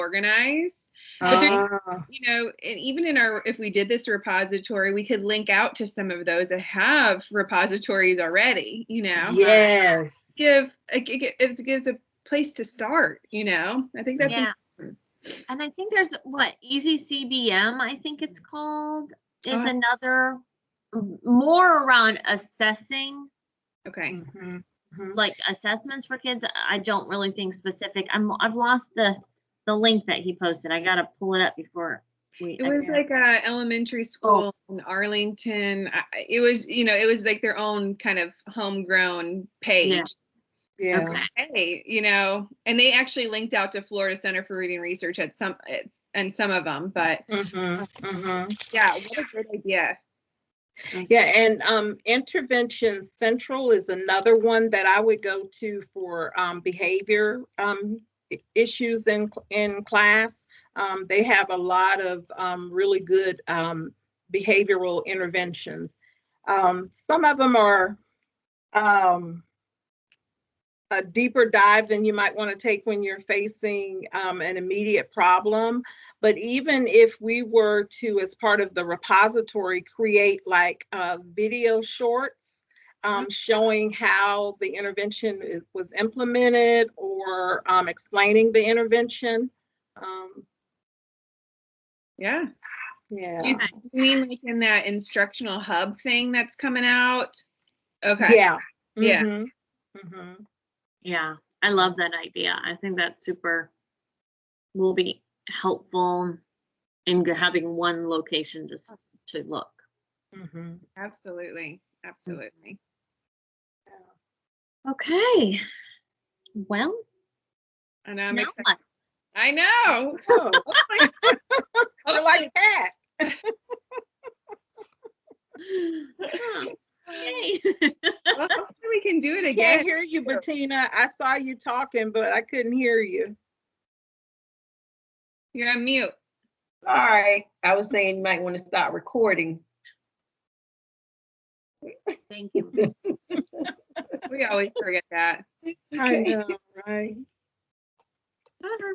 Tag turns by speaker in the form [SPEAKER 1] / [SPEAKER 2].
[SPEAKER 1] organized. But there-
[SPEAKER 2] Ah,
[SPEAKER 1] you know, and even in our, if we did this repository, we could link out to some of those that have repositories already, you know?
[SPEAKER 2] Ah, Yes.
[SPEAKER 1] Give, it gi- gi- it gives a place to start, you know? I think that's,
[SPEAKER 3] yeah.
[SPEAKER 1] important.
[SPEAKER 3] And I think there's what Easy CBM, I think it's called, is
[SPEAKER 1] Oh.
[SPEAKER 3] another m- more around assessing
[SPEAKER 1] okay.
[SPEAKER 2] Mhm,
[SPEAKER 1] Mm-hmm.
[SPEAKER 2] mhm.
[SPEAKER 3] like assessments for kids. I don't really think specific. I'm I've lost the the link that he posted. I gotta pull it up before we.
[SPEAKER 1] It was
[SPEAKER 2] Yeah.
[SPEAKER 1] like a elementary school in Arlington. I- I- It was, you know, it was like their own kind of homegrown page.
[SPEAKER 2] Yeah.
[SPEAKER 3] Okay.
[SPEAKER 1] Hey, you know, and they actually linked out to Florida Center for Reading Research at some, it's, and some of them, but
[SPEAKER 2] Mhm, mhm.
[SPEAKER 1] yeah, what a great idea.
[SPEAKER 2] Yeah, and um, Intervention Central is another one that I would go to for um, behavior um, i- issues in, cl- in class. Um, They have a lot of um, really good um, behavioral interventions. Um, Some of them are um, a deeper dive than you might want to take when you're facing um, an immediate problem. But even if we were to, as part of the repository, create like uh, video shorts um,
[SPEAKER 1] Mm-hmm.
[SPEAKER 2] showing how the intervention is, was implemented or um, explaining the intervention. Um,
[SPEAKER 1] Yeah. Do
[SPEAKER 2] yeah.
[SPEAKER 1] you do you mean like in that instructional hub thing that's coming out? Okay.
[SPEAKER 2] Yeah.
[SPEAKER 1] Yeah.
[SPEAKER 2] Mhm. Mhm.
[SPEAKER 3] Yeah, I love that idea. I think that's super. Will be helpful in g- having one location just to look.
[SPEAKER 2] Mhm.
[SPEAKER 1] Absolutely. Absolutely.
[SPEAKER 3] Okay. Well,
[SPEAKER 1] I know. I'm
[SPEAKER 3] now
[SPEAKER 1] excited.
[SPEAKER 3] what?
[SPEAKER 1] I know.
[SPEAKER 2] Oh, we're
[SPEAKER 1] Hopefully-
[SPEAKER 2] like that.
[SPEAKER 3] Huh, yay.
[SPEAKER 1] well, hopefully we can do it
[SPEAKER 2] I can't
[SPEAKER 1] again.
[SPEAKER 2] hear you, Bettina. I saw you talking, but I couldn't hear you.
[SPEAKER 1] You're on mute.
[SPEAKER 4] Sorry, I was saying you might want to stop recording.
[SPEAKER 3] Thank you.
[SPEAKER 1] We always forget that.
[SPEAKER 2] I know, right?
[SPEAKER 3] Bye.